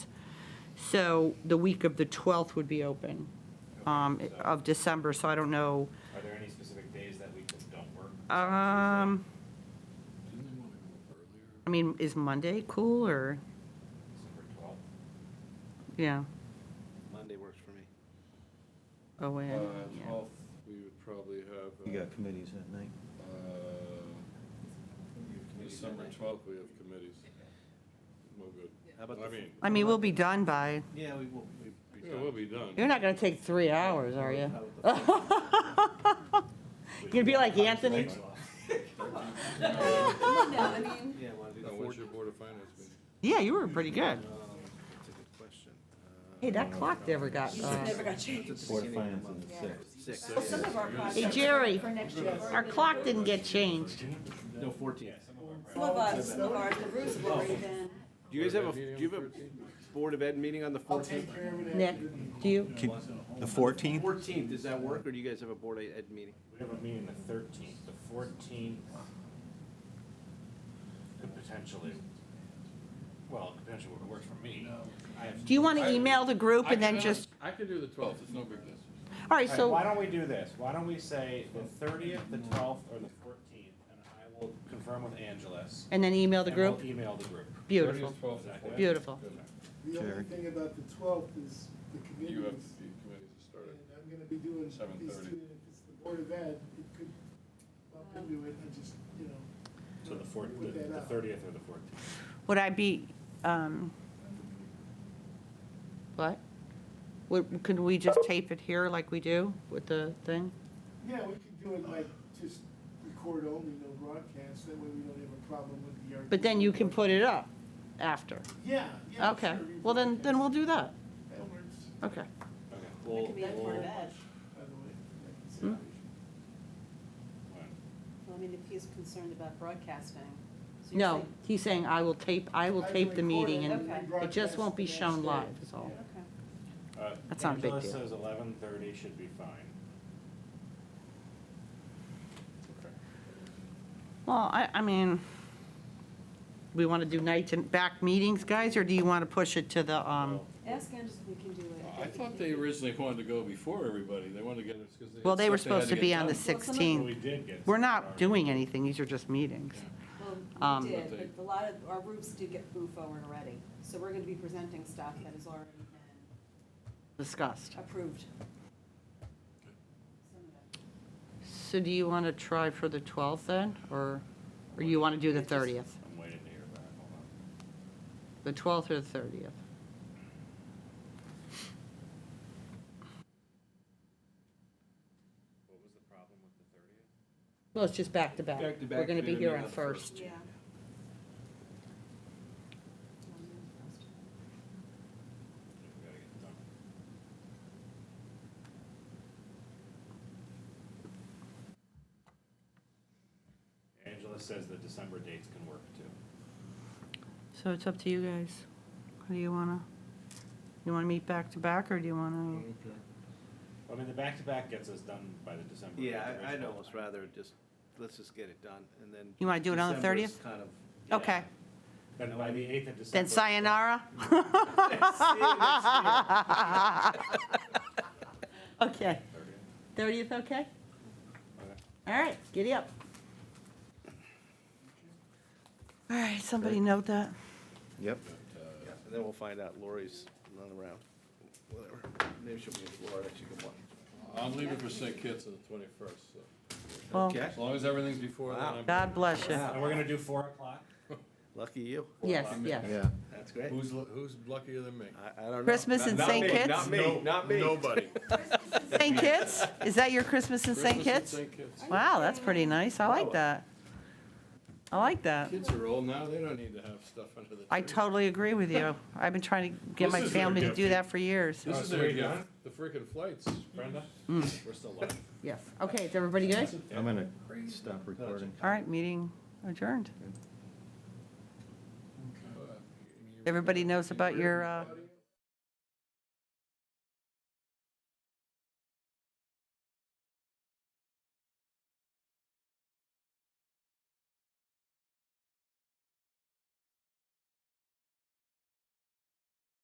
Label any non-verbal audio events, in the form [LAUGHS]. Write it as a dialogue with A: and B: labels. A: So the week of the 12th would be open um, of December, so I don't know.
B: Are there any specific days that we just don't work?
A: Um, I mean, is Monday cool or,
B: December 12th?
A: yeah,
C: Monday works for me.
A: oh, wait.
D: Uh,
A: yeah.
D: twelfth, we would probably have. uh,
E: You got committees that night.
D: uh, December twelfth, we have committees. No good.
C: How about
D: I
C: the-
D: mean,
A: I mean, we'll be done by,
C: Yeah, we will. we'd be
D: yeah,
C: done.
D: we'll be done.
A: you're not going to take three hours, are you?
C: How about the-
A: You're going to be like Anthony?
F: No, I mean,
D: [LAUGHS]
C: Yeah, want to do the
D: Now,
C: fourth?
D: what's your board of finance meeting?
A: Yeah, you were pretty good.
C: Um, That's a good question. Uh,
A: Hey, that clock never got, uh,
F: never got
C: that's at
F: changed.
C: the
E: Board of
C: beginning of
E: Finance
C: the
E: on the
C: month.
E: sixth.
C: Six.
F: Well, some of our
A: hey,
F: projects
A: Jerry,
F: for next year. have
A: our
F: already
A: clock
F: been-
A: didn't get changed.
C: No, fourteen.
F: Some of us, some of ours, the roofs have already been.
C: Do you guys have a,
D: Board
C: do
D: of
C: you have
D: Ed meeting on
C: a Board of Ed meeting on the fourteenth?
A: Nick, do you?
E: The 14th?
C: Fourteenth, does that work, or do you guys have a Board of Ed meeting?
B: We have a meeting the 13th, the 14th. Could potentially, well, potentially would work for me. I have-
A: Do you want to email the group and then
D: I can-
A: just,
D: I can do the twelfth, it's no big deal.
A: all right,
B: All right, Why
A: so,
B: don't we do this? Why don't we say the 30th, the 12th, or the 14th? And I will confirm with Angeles.
A: and then email the
B: and we'll
A: group?
B: Email the group.
A: Beautiful,
D: 30th, 12th, and
B: Exactly.
D: 14th.
A: beautiful.
G: The only
E: Jerry.
G: thing about the twelfth is the
D: You have
G: committees.
D: the committees to start
G: And
D: at
G: I'm gonna be doing these two,
D: 7:30.
G: and if it's the Board of Ed, it could bump into it, I just, you know.
B: So the 4th,
G: work that
B: the
G: out.
B: 30th or the 14th?
A: Would I be, um, what? Would, could we just tape it here like we do with the thing?
G: Yeah, we could do it like just record only, no broadcast, that way we don't have a problem with the.
A: But then you can put it up after.
G: Yeah, yeah.
A: Okay,
G: sure,
A: well then, then we'll do that.
G: rebroadcast. That works,
A: Okay.
B: Okay.
F: It
B: We'll,
F: could be at Board of Ed.
G: by the way. that's
A: Hmm?
F: Well, I mean, if he's concerned about broadcasting. so you're
A: No,
F: saying-
A: he's saying I will tape, I will
G: I can
A: tape the
G: record
A: meeting
G: it
A: and
G: and
F: Okay.
A: it just won't be
G: rebroadcast the
A: shown
G: next
A: live
G: day.
A: is all.
G: Yeah.
F: Okay.
B: Uh,
A: That's not a big
B: Angela
A: deal.
B: says 11:30 should be fine.
A: Well, I, I mean, we want to do night and back meetings, guys, or do you want to push it to the, um,
F: Ask Andrews if we can do it.
D: I thought they originally wanted to go before everybody, they wanted to get us, because they.
A: well, they were
D: stuff had
A: supposed to
D: get
A: be on the
D: done.
F: some of-
B: Well, we
A: 16th.
B: did get.
A: We're not doing anything, these are just meetings.
F: Well,
A: Um,
F: we did, but a lot of, our roofs did get moved forward already. So we're gonna be presenting stuff that has already been
A: discussed.
F: approved. Some of it.
A: So do you want to try for the 12th then, or, or you want to do the 30th?
B: I'm waiting to hear back, hold on.
A: The 12th or the 30th?
B: What was the problem with the thirtieth?
A: Well, it's just back to back.
C: Back to
A: We're
C: back,
A: going to
C: we
A: be
C: didn't
A: here
C: meet
A: on
C: on the
A: first.
F: Yeah.
B: We gotta get it done. Angela says the December dates can work too.
A: So it's up to you guys. How do you want to, you want to meet back to back, or do you want to?
B: I mean, the back-to-back gets us done by the December.
C: Yeah,
B: the
C: I- I'd
B: original
C: almost
B: time.
C: rather just, let's just get it done, and then.
A: You wanna do it on the
C: December is
A: 30th?
C: Kind of.
A: Okay,
B: Then by the eighth of December.
A: then sayonara? Okay,
B: 30th.
A: 30th, okay?
B: Okay.
A: All right, giddy up. All right, somebody note that.
E: Yep.
D: Uh,
C: Yeah, And then we'll find out Lori's not around, whatever. Maybe she'll be in Florida, she can watch.
D: I'm leaving for St. Kitts on the twenty-first, so,
A: Well,
C: Okay,
D: as long as everything's before then,
C: Wow.
D: I'm.
A: God bless you.
B: And we're gonna do four o'clock?
C: lucky you.
A: Yes, yes.
E: Yeah.
C: That's great.
D: Who's, lu- who's luckier than me?
C: I, I don't know.
A: Christmas in
C: Not-
A: St.
C: not me,
A: Kitts?
C: Not me, not me.
A: [LAUGHS]
D: Nobody.
A: St. Kitts? Is that your Christmas in St.
D: Christmas in
A: Kitts?
D: St. Kitts.
A: Wow, that's pretty nice. I like that. I like that.
D: Kids are old now, they don't need to have stuff under the tree.
A: I totally agree with you. I've been trying to get my
D: This is their
A: family to do
D: gift.
A: that for years.
D: This is
B: so
D: their
B: we
D: gift,
B: done?
D: the freaking flights.
B: Brenda? We're still live.
A: Yes. Okay, is everybody good?
E: I'm going to stop recording.
A: All right, meeting adjourned. Everybody knows about your, uh,